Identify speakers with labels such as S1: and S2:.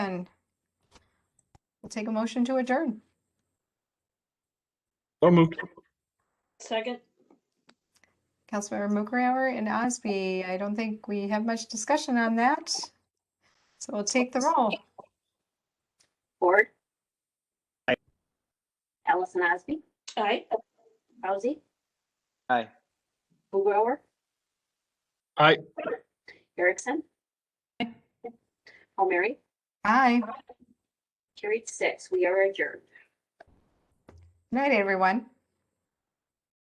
S1: then we'll take a motion to adjourn.
S2: So moved.
S3: Second,
S1: Councilmember Mookrower and Osby, I don't think we have much discussion on that. So we'll take the roll.
S4: Ford. Ellison Osby,
S3: aye.
S4: Rousey.
S5: Aye.
S4: Blugrower.
S2: Aye.
S4: Erickson. O'Meara,
S1: Aye.
S4: carried six. We are adjourned.
S1: Night, everyone.